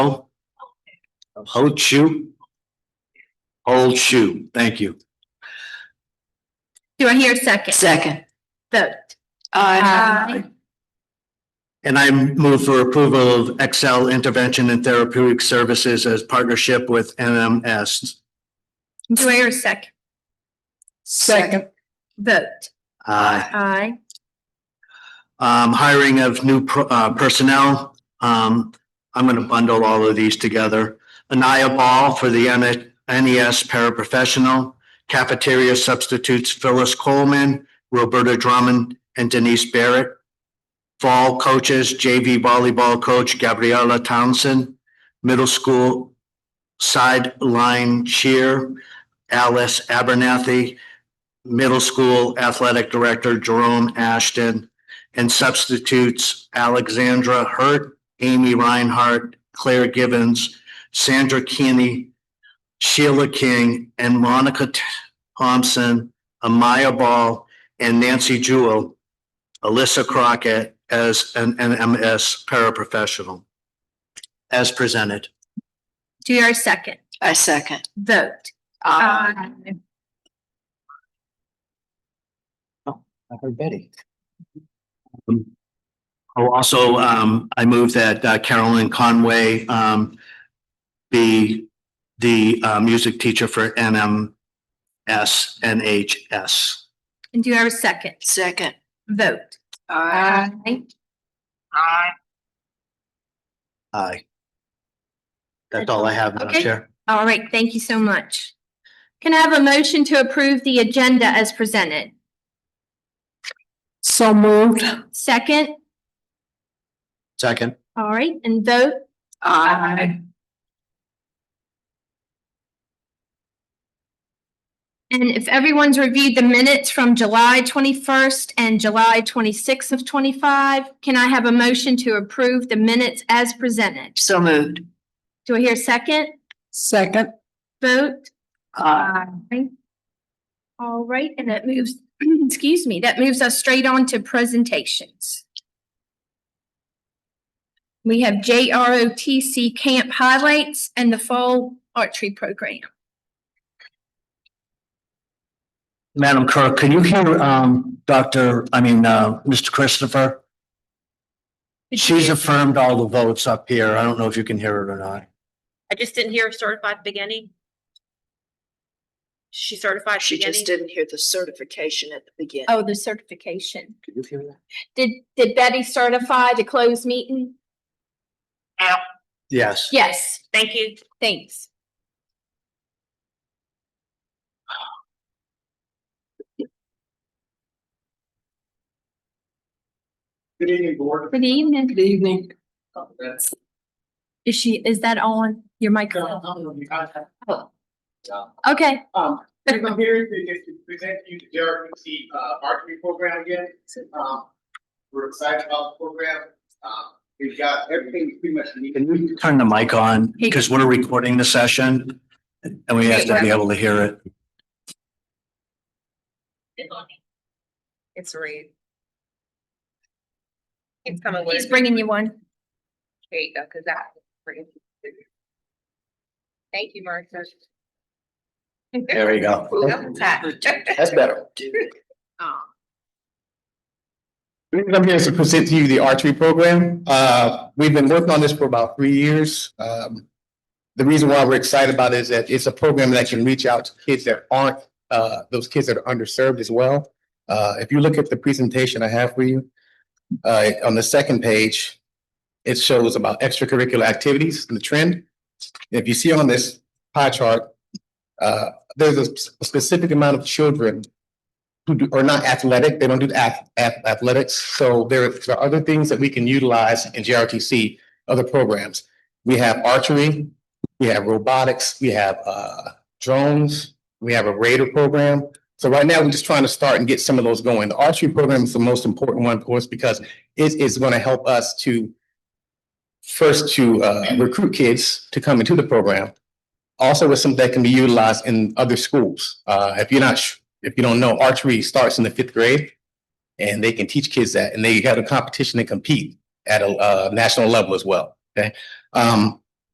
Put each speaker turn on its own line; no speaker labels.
Ho Chu. Old Chu, thank you.
Do I hear a second?
Second.
Vote.
Uh, Aye.
And I move for approval of Excel Intervention and Therapeutic Services as partnership with NMS.
Do I hear a second?
Second.
Vote.
Aye.
Aye.
Um, hiring of new pro- uh, personnel. Um, I'm gonna bundle all of these together. Anaya Ball for the N- NES paraprofessional, cafeteria substitutes Phyllis Coleman, Roberta Drummond, and Denise Barrett. Fall coaches JV volleyball coach Gabriella Townsend, middle school sideline cheer Alice Abernathy, middle school athletic director Jerome Ashton, and substitutes Alexandra Hurt, Amy Reinhardt, Claire Givens, Sandra Keeney, Sheila King, and Monica T- Thompson, Amaya Ball, and Nancy Jewell, Alyssa Crockett as an NMS paraprofessional, as presented.
Do you hear a second?
I second. Uh,
Vote.
I heard Betty. Oh, also, um, I move that uh, Carolyn Conway, um, be the, uh, music teacher for NMS, NHS.
And do you hear a second?
Second.
Vote.
Aye. That's all I have, Madam
Okay.
Chair.
All right, thank you so much. Can I have a motion to approve the agenda as presented?
So moved.
Second?
Second.
All right, and vote.
Aye.
And if everyone's reviewed the minutes from July twenty-first and July twenty-sixth of twenty-five, can I have a motion to approve the minutes as presented?
So moved.
Do I hear a second?
Second. Uh,
Vote.
Aye.
All right, and that moves, excuse me, that moves us straight on to presentations. We have JROTC Camp Highlights and the Fall Archery Program.
Madam Clerk, can you hear, um, Dr., I mean, uh, Mr. Christopher? She's affirmed all the votes up here. I don't know if you can hear it or not.
I just didn't hear certified beginning. She certified
She just
beginning.
didn't hear the certification at the beginning.
Oh, the certification.
Could you hear that?
Did, did Betty certify the closed meeting?
Yes.
Yes,
Thank you.
thanks.
Good evening, board.
Good evening.
Good evening.
Is she, is that on your microphone?
Um,
Okay,
I'm here to just to present to you the JRPC uh marketing program again. Um, we're excited about the program. Um, we've got everything pretty much we
Can you turn the mic on? Because we're recording the session and we have to be able to hear it.
It's read. It's coming
he's bringing you one.
There you go, cause that. Thank you, Martha.
There we go.
That's better. I'm here to present to you the archery program. Uh, we've been working on this for about three years. Um, the reason why we're excited about it is that it's a program that can reach out to kids that aren't, uh, those kids that are underserved as well. Uh, if you look at the presentation I have for you, uh, on the second page, it shows about extracurricular activities and the trend. If you see on this pie chart, uh, there's a s- a specific amount of children who do, are not athletic, they don't do ath- ath- athletics. So there there are other things that we can utilize in GRTC, other programs. We have archery, we have robotics, we have uh, drones, we have a radar program. So right now, we're just trying to start and get some of those going. The archery program is the most important one, of course, because it is going to help us to first to uh, recruit kids to come into the program. Also, with some that can be utilized in other schools. Uh, If you're not sh- if you don't know, archery starts in the fifth grade. And they can teach kids that, and they got a competition and compete at a uh, national level as well, okay? Um,